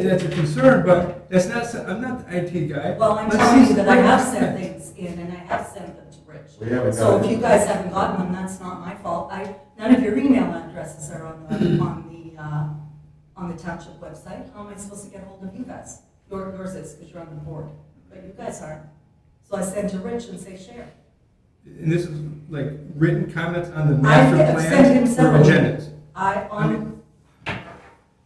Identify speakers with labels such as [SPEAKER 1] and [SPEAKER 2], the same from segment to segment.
[SPEAKER 1] That's a concern, but that's not, so- I'm not the IT guy.
[SPEAKER 2] Well, I'm
[SPEAKER 1] Let's
[SPEAKER 2] telling
[SPEAKER 1] see-
[SPEAKER 2] you that I have sent things in and I have sent them to
[SPEAKER 3] We
[SPEAKER 2] Rich.
[SPEAKER 3] haven't
[SPEAKER 2] So
[SPEAKER 3] got
[SPEAKER 2] if you
[SPEAKER 3] it.
[SPEAKER 2] guys haven't gotten them, that's not my fault. I, none of your email addresses are on the, on the, uh, on the township website. How am I supposed to get hold of you guys? Your- Yours is, because you're on the board, but you guys aren't. So I send to Rich and say, share.
[SPEAKER 1] And this is like written comments on the
[SPEAKER 2] I
[SPEAKER 1] master
[SPEAKER 2] have sent
[SPEAKER 1] plan
[SPEAKER 2] him
[SPEAKER 1] for
[SPEAKER 2] several.
[SPEAKER 1] agendas.
[SPEAKER 2] I, on,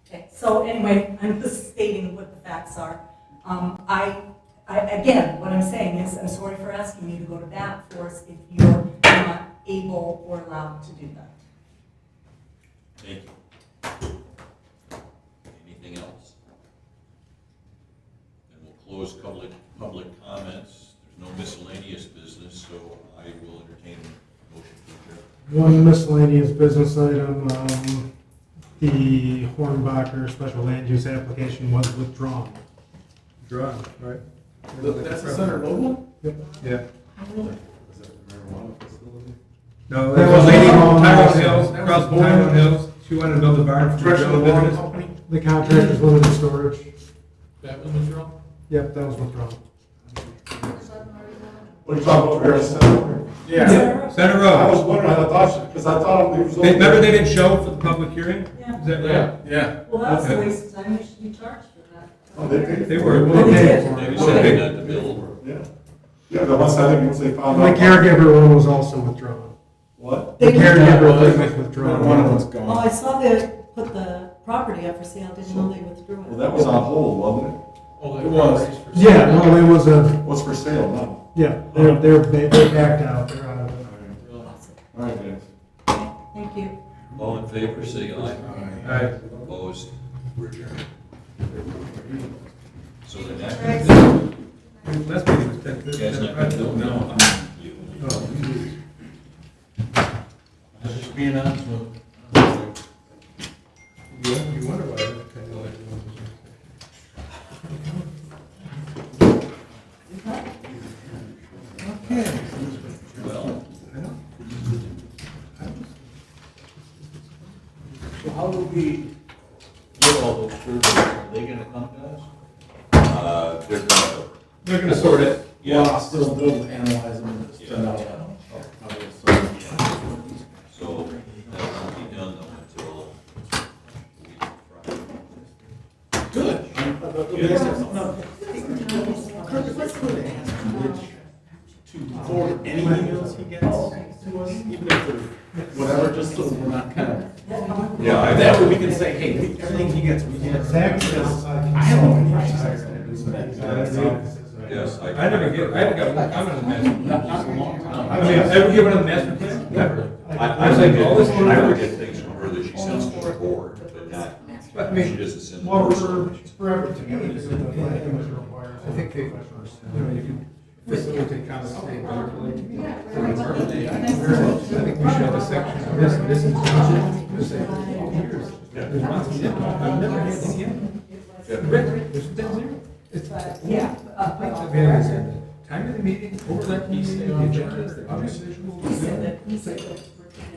[SPEAKER 2] okay, so anyway, I'm just stating what the facts are. Um, I, I, again, what I'm saying is, I'm sorry for asking you to go to bat for us if you're not able or allowed to do that.
[SPEAKER 4] Thank you. Anything else? And we'll close public, public comments. There's no miscellaneous business, so I will entertain a motion to adjourn.
[SPEAKER 5] One miscellaneous business item, um, the Hornbacher special land use application was withdrawn.
[SPEAKER 1] Drawn, right?
[SPEAKER 3] That's the center mobile?
[SPEAKER 1] Yeah.
[SPEAKER 3] Is that marijuana facility?
[SPEAKER 1] No, there was a lady from Tyrone Hills,
[SPEAKER 5] That was
[SPEAKER 1] across from
[SPEAKER 5] born-
[SPEAKER 1] Tyrone Hills, she wanted to build a barn for her own business.
[SPEAKER 3] company?
[SPEAKER 5] The contract is limited storage.
[SPEAKER 3] That was withdrawn?
[SPEAKER 5] Yep, that was withdrawn.
[SPEAKER 3] What are you talking about, Barry Center?
[SPEAKER 1] Yeah, Center
[SPEAKER 3] I was
[SPEAKER 1] Road.
[SPEAKER 3] wondering, I thought, because I thought it was.
[SPEAKER 1] They- Remember they didn't show for the public hearing?
[SPEAKER 2] Yeah.
[SPEAKER 1] Is that right?
[SPEAKER 3] Yeah.
[SPEAKER 2] Well,
[SPEAKER 1] that was a
[SPEAKER 2] waste of time, you should be charged for that.
[SPEAKER 3] Oh, they paid.
[SPEAKER 1] They were-
[SPEAKER 5] They paid for
[SPEAKER 4] They
[SPEAKER 5] it.
[SPEAKER 4] were sending out the bill.
[SPEAKER 3] Yeah. Yeah, the ones I think, once they found
[SPEAKER 5] The
[SPEAKER 3] out.
[SPEAKER 5] caregiver one was also withdrawn.
[SPEAKER 3] What?
[SPEAKER 5] The caregiver thing was withdrawn.
[SPEAKER 3] One of them's
[SPEAKER 2] Oh,
[SPEAKER 3] gone.
[SPEAKER 2] I saw they put the property up for sale, didn't know they withdrew
[SPEAKER 3] Well,
[SPEAKER 2] it.
[SPEAKER 3] that was on hold, wasn't it?
[SPEAKER 6] It
[SPEAKER 3] It was.
[SPEAKER 5] Yeah, no, it was a,
[SPEAKER 3] What's for sale now?
[SPEAKER 5] yeah, they're, they're, they they backed out, they're out of it.
[SPEAKER 3] All right, guys.
[SPEAKER 2] Thank you.
[SPEAKER 4] All in favor, say aye.
[SPEAKER 1] All right.
[SPEAKER 4] Opposed, we're adjourned. So the next,
[SPEAKER 1] Last meeting was ten fifty.
[SPEAKER 4] that's not, no, no, I'm, you. I'm just being honest with you.
[SPEAKER 1] You wonder why.
[SPEAKER 4] Well.
[SPEAKER 6] So how do we get all those surveys? Are they gonna come to us?
[SPEAKER 4] Uh, they're gonna,
[SPEAKER 1] They're gonna sort it.
[SPEAKER 4] Yeah.
[SPEAKER 6] Well, I'll still do analyze them and send out. uh, okay, so-
[SPEAKER 4] so that won't be done though until a week Friday.
[SPEAKER 6] Good.
[SPEAKER 4] Yeah.
[SPEAKER 6] Kirk, let's go to ask Rich to forward any emails he gets
[SPEAKER 3] Oh.
[SPEAKER 6] to us, even if they're whatever, just so we're not kind of.
[SPEAKER 4] Yeah, I-
[SPEAKER 6] That way we can say, hey, we- everything he gets, we get. Because I don't. know
[SPEAKER 3] Yeah.
[SPEAKER 4] Yes, I.
[SPEAKER 1] I never get, I haven't got one comment on that.
[SPEAKER 6] Not, not in a long time.
[SPEAKER 1] I mean, ever given a master plan? Never.
[SPEAKER 4] I, I
[SPEAKER 1] I've
[SPEAKER 4] think,
[SPEAKER 1] seen all this-
[SPEAKER 4] I would get things from her that she sends to the board, but not,
[SPEAKER 1] But I
[SPEAKER 4] she
[SPEAKER 1] mean,
[SPEAKER 4] doesn't send the
[SPEAKER 5] Well,
[SPEAKER 4] personal.
[SPEAKER 5] for, for everything, I think the planning was required.
[SPEAKER 1] I think they, you know, you can facilitate comments. they regulate. I think we should have a section, of this, this is township, this is all years. There's lots of, them. I've never had any in. Rick, there's been zero. It's,
[SPEAKER 2] But, yeah. uh,
[SPEAKER 1] I mean, it's at the time of the meeting, overlap meeting, the agenda, the audio visual.
[SPEAKER 2] He said that, he said that.